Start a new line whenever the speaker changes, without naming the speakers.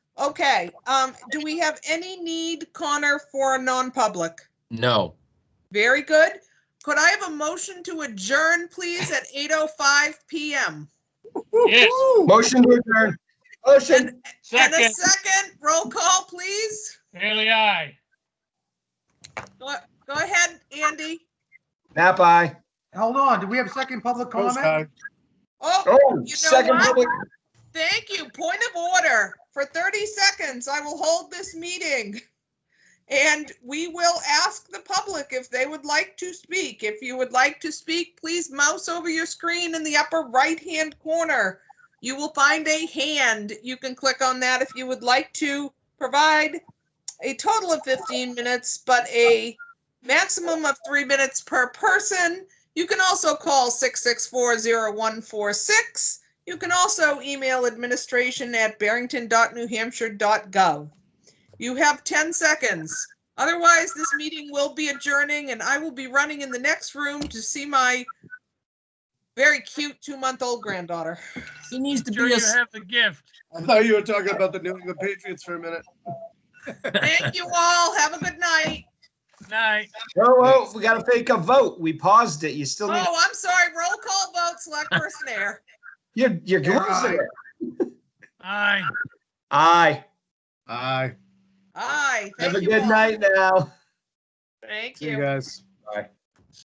Okay, um, do we have any need, Connor, for a non-public?
No.
Very good. Could I have a motion to adjourn, please, at 8:05 PM?
Motion to adjourn. Motion.
And and a
Second,
second, roll call, please.
Haley, aye.
Go go ahead, Andy.
Nap aye.
Hold on, do we have a second public comment?
Oh,
Oh,
know
second
what?
public.
thank you. Point of order. For 30 seconds, I will hold this meeting. And we will ask the public if they would like to speak. If you would like to speak, please mouse over your screen in the upper right-hand corner. You will find a hand. You can click on that if you would like to provide a total of 15 minutes, but a maximum of three minutes per person. You can also call 6640146. You can also email administration at barrington.newhampshire.gov. You have 10 seconds. Otherwise, this meeting will be adjourning and I will be running in the next room to see my very cute two-month-old granddaughter.
He needs to
Sure
be
you
a,
have the gift.
I thought you were talking about the New England Patriots for a minute.
Thank you all. Have a good night.
Night.
Whoa, whoa, Oh, we gotta fake a vote. We paused it. You still need,
Oh, I'm sorry. Roll call vote, select person air.
you're, you're
Yeah,
going there.
Aye.
Aye.
Aye.
Aye.
Have a
Thank you
good
all.
night now.
Thank
See you
you.
guys.